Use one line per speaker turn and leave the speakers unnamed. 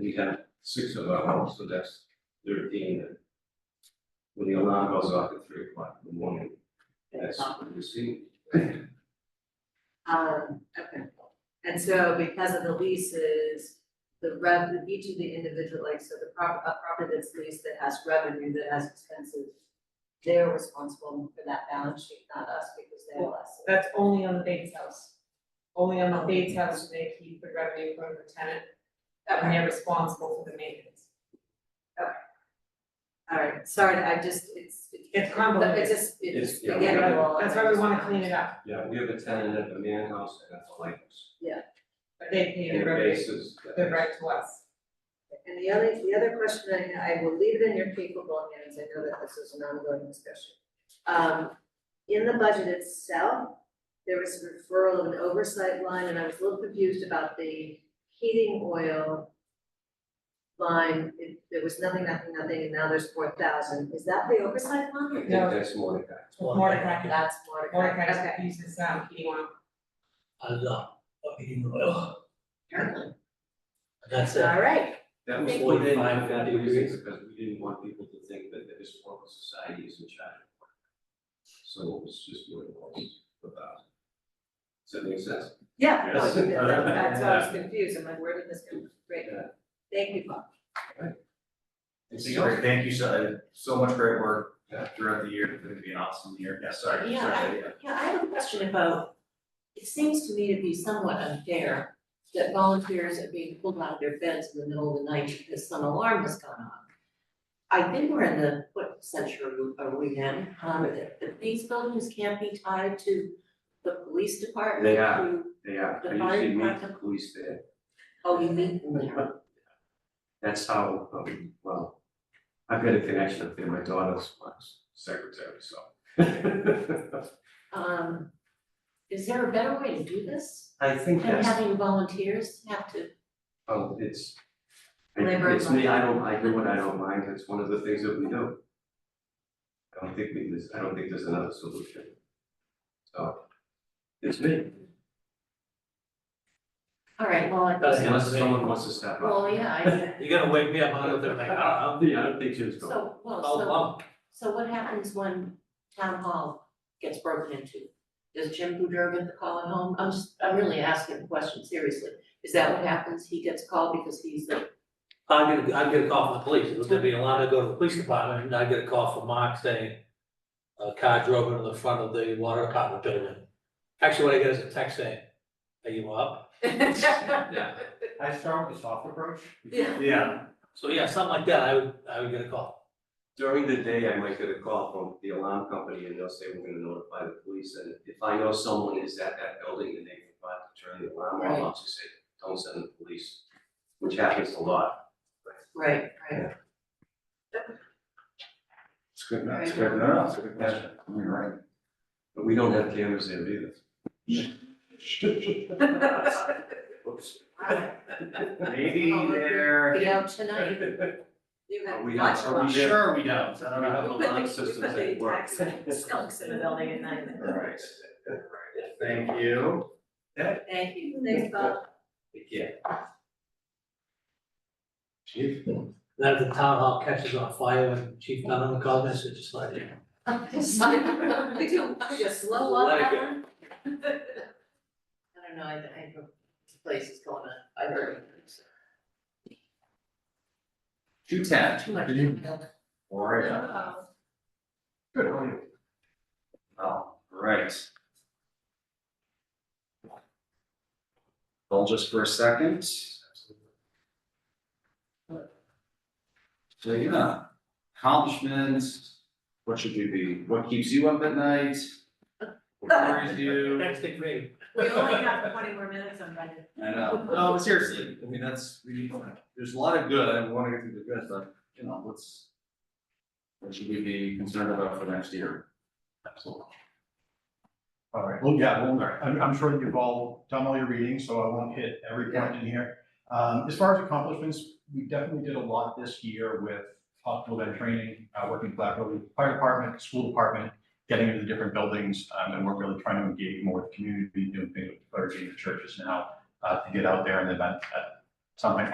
we have six of our homes, so that's thirteen. And When the alarm goes off at three o'clock in the morning, that's what you see.
Um, okay, and so because of the leases, the rev, each of the individual, like, so the prop, a property that's leased that has revenue, that has expenses. They're responsible for that balance sheet, not us, because they're less.
That's only on the Bates house. Only on the Bates house do they keep the revenue from the tenant, and
Okay,
they're responsible for the maintenance.
all right, sorry, I just, it's.
It's convoluted.
It's just, it's.
It's- yeah,
again,
we-
well,
That's why we wanna clean it up,
Yeah, we have a tenant at the man house and at the lighthouse.
but they pay
And
the
the
revenue,
bases.
the right to us.
And the other, the other question, and I will leave it in your capable hands, I know that this is an ongoing discussion. Um, in the budget itself, there was a referral of an oversight line, and I was a little confused about the heating oil line, It- there was nothing, nothing, nothing, and now there's four thousand, is that the oversight
I
line?
think
No.
that's Mordecai.
Mordecai,
That's more, okay,
Mordecai uses um heating oil.
a lot of heating oil.
apparently,
That's it.
all right,
That was
Thank
one thing,
Forty-five,
that
fifty degrees.
because we didn't want people to think that the historical society is in charge. of it. So it was just what it was about. Does that make sense?
yeah, no,
Yes.
that- that's why I was confused, I'm like, where did this come, great,
Yeah.
thank you, Bob.
Anything else?
Thank you so, uh, so much great work uh,
Yeah.
throughout the year. It's gonna be an awesome year. Yeah, sorry.
Yeah,
sorry, yeah.
Yeah, I have a question about, it seems to me to be somewhat unfair that volunteers are being pulled out of their beds in the middle of the night because some alarm has gone off. I think we're in the, what century are we in, um, that that these buildings can't be tied to the police department?
They are.
to-
They are,
The
I
fire
usually meet the
department?
police there,
Oh, you meet them there,
that's how, um, well, I've got a connection up there, my daughter's was secretary, so.
um, is there a better way to do this?
I think
Than
that's,
having volunteers have to,
oh, it's, I-
Labor
it's me, I
of
don't, I do what I don't mind, that's one of the things that we do. I don't think we, there's, I don't think there's another solution. So, it's me,
all right, well, I.
That's
unless someone wants to step up.
Well, yeah, I,
You're gonna wake me up out of there like, ah,
I don't think, I don't think Jim's going,
so, well,
oh,
so.
wow.
So what happens when town hall gets broken into? Does Jim Boudreau get the call at home? I'm just, I'm really asking the question seriously. Is that what happens? He gets called because he's the,
I'm gonna, I'm gonna call from the police. It was gonna be allowed to go to the police department and I get a call from Mark saying a car drove into the front of the water department building. Actually, what I get is a text saying, are you up?
yeah,
I start with a soft approach.
Yeah.
Yeah,
So yeah, something like that, I would, I would get a call.
during the day, I might get a call from the alarm company and they'll say, we're gonna notify the police, and if I know someone is at that building and they forgot to turn the alarm off, I'll just say, don't send the police, which happens a lot.
right, right.
it's good,
Right.
it's good, no, no, it's a good question. You're right.
But we don't have cameras there either.
Whoops.
Alright,
Maybe
Be
there.
out tonight.
You
Are
have
we-
much
are
I'm
luck.
there?
sure we don't, I don't know.
have
We put
alarm
the- we
systems
put the
that work.
tax- Skunks in the building at night.
All right. Thank you.
Thank you, thanks, Bob.
Yeah.
Chief.
Then if the town hall catches on fire and Chief Dunham calls us, it's just like,
Could you, could you slow up
Let it
that
go.
one?
I don't know, I, I think this place is going to, I heard
Two ten.
too much. Uh,
Good evening. Or, yeah.
Oh.
Good, how are you? All right. Hold just for a second. So, yeah, accomplishments, what should you be, what keeps you up at night? What worries you?
next thing for me.
We only have twenty more minutes on Monday.
I know, no, but seriously, I mean, that's, we, there's a lot of good, I wanna get through the good, but, you know, what's. What should we be concerned about for next year? Absolutely.
All right, well, yeah, well, all right. I'm, I'm sure you've all done all your reading, so I won't hit every point in here. Um, as far as accomplishments, we definitely did a lot this year with hospital bed training, uh, working collaboratively with fire department, school department, getting into the different buildings, um, and we're really trying to engage more with the community, doing things with clergy and churches now, uh, to get out there and event, uh, something